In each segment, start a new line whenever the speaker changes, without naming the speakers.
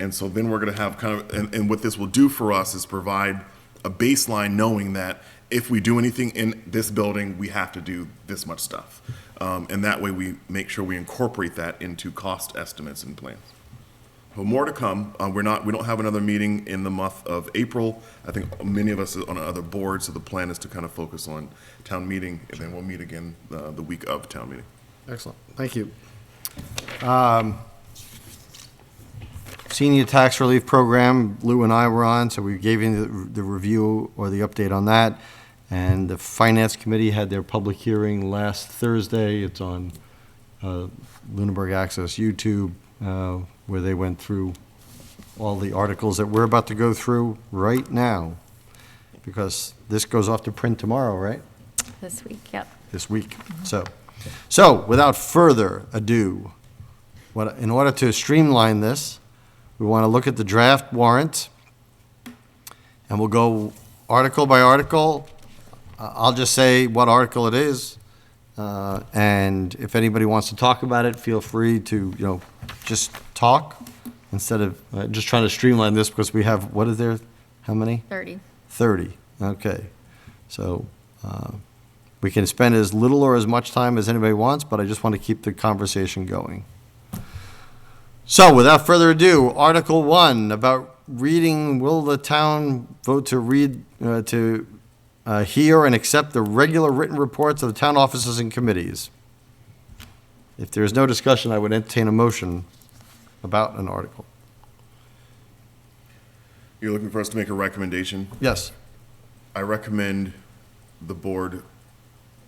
And so then we're going to have kind of, and, and what this will do for us is provide a baseline knowing that if we do anything in this building, we have to do this much stuff. Um, and that way we make sure we incorporate that into cost estimates and plans. But more to come. Uh, we're not, we don't have another meeting in the month of April. I think many of us are on other boards, so the plan is to kind of focus on town meeting, and then we'll meet again uh, the week of town meeting.
Excellent, thank you. Um, Senior Tax Relief Program, Lou and I were on, so we gave you the- the review or the update on that. And the Finance Committee had their public hearing last Thursday. It's on uh, Lunenburg Access YouTube, uh, where they went through all the articles that we're about to go through right now, because this goes off to print tomorrow, right?
This week, yep.
this week. So, so without further ado, what, in order to streamline this, we want to look at the draft warrant, and we'll go article by article. Uh, I'll just say what article it is, uh, and if anybody wants to talk about it, feel free to, you know, just talk instead of uh, just trying to streamline this because we have, what is there, how many?
30.
30, okay. So uh, we can spend as little or as much time as anybody wants, but I just want to keep the conversation going. So without further ado, Article 1 about reading, will the town vote to read, uh, to uh, hear and accept the regular written reports of the town offices and committees? If there is no discussion, I would entertain a motion about an article.
You're looking for us to make a recommendation?
Yes.
I recommend the board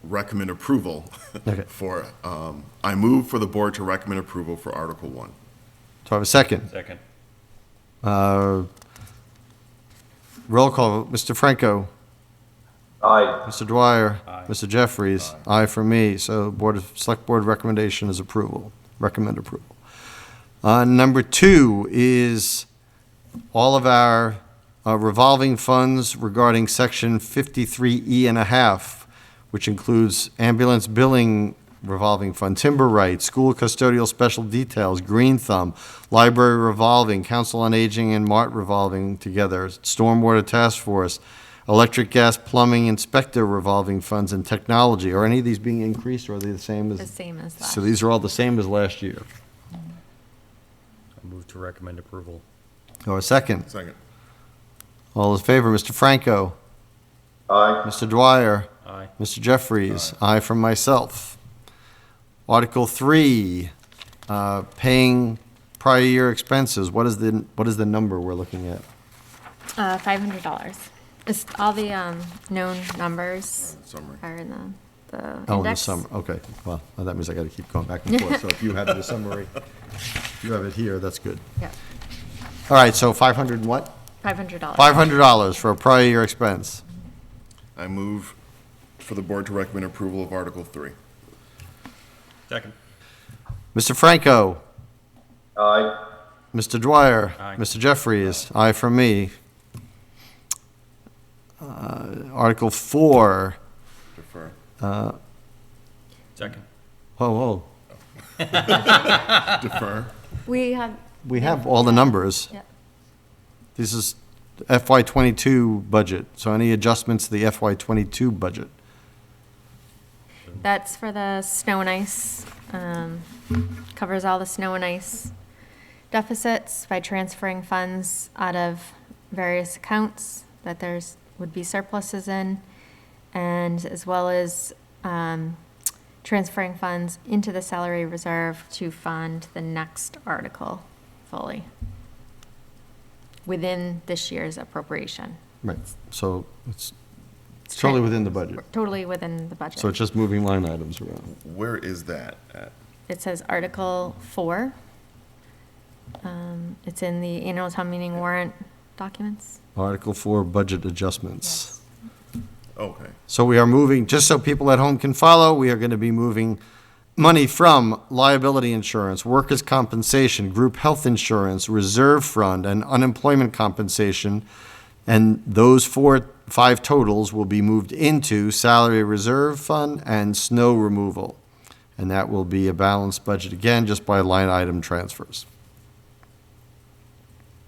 recommend approval
Okay.
for, um, I move for the board to recommend approval for Article One.
Do I have a second?
Second.
Uh, Roll call, Mr. Franco.
Aye.
Mr. Dwyer.
Aye.
Mr. Jeffries. Aye. for me. So Board of, Select Board recommendation is approval, recommend approval. Uh, Number two is all of our uh, revolving funds regarding Section 53E and a half, which includes ambulance billing revolving fund, timber rights, school custodial special details, Green Thumb, library revolving, council on aging and mart revolving together, stormwater task force, electric, gas, plumbing, inspector revolving funds, and technology. Are any of these being increased, or are they the same as?
The same as
So
last.
these are all the same as last year.
I move to recommend approval.
Or a second?
Second.
All in favor, Mr. Franco? Aye. Mr. Dwyer?
Aye.
Mr. Jeffries? Aye from myself. Article three, uh, paying prior year expenses. What is the, what is the number we're looking at?
Uh, $500. It's all the um, known numbers
Summary.
are in the, the index.
Oh, in the summer, okay. Well, that means I gotta keep going back and forth. So if you have the summary, if you have it here, that's good.
Yep,
All right, so five hundred and what?
$500.
Five hundred dollars for a prior year expense.
I move for the board to recommend approval of Article Three.
Second.
Mr. Franco?
Aye.
Mr. Dwyer.
Aye.
Mr. Jeffries. Aye for me. Uh, Article four.
Defer.
Second.
Oh, oh.
Defer.
We have,
We have all the numbers.
yep.
This is FY twenty-two budget, so any adjustments to the FY twenty-two budget?
That's for the snow and ice, um, covers all the snow and ice deficits by transferring funds out of various accounts that there's, would be surpluses in, and as well as um, transferring funds into the salary reserve to fund the next article fully within this year's appropriation.
Right. So it's totally within the budget.
Totally within the budget.
So it's just moving line items around.
Where is that at?
It says Article 4. Um, It's in the annual town meeting warrant documents.
Article four, budget adjustments.
Okay.
So we are moving, just so people at home can follow, we are going to be moving money from liability insurance, workers' compensation, group health insurance, reserve fund, and unemployment compensation. And those four, five totals will be moved into salary reserve fund and snow removal. And that will be a balanced budget again, just by line item transfers.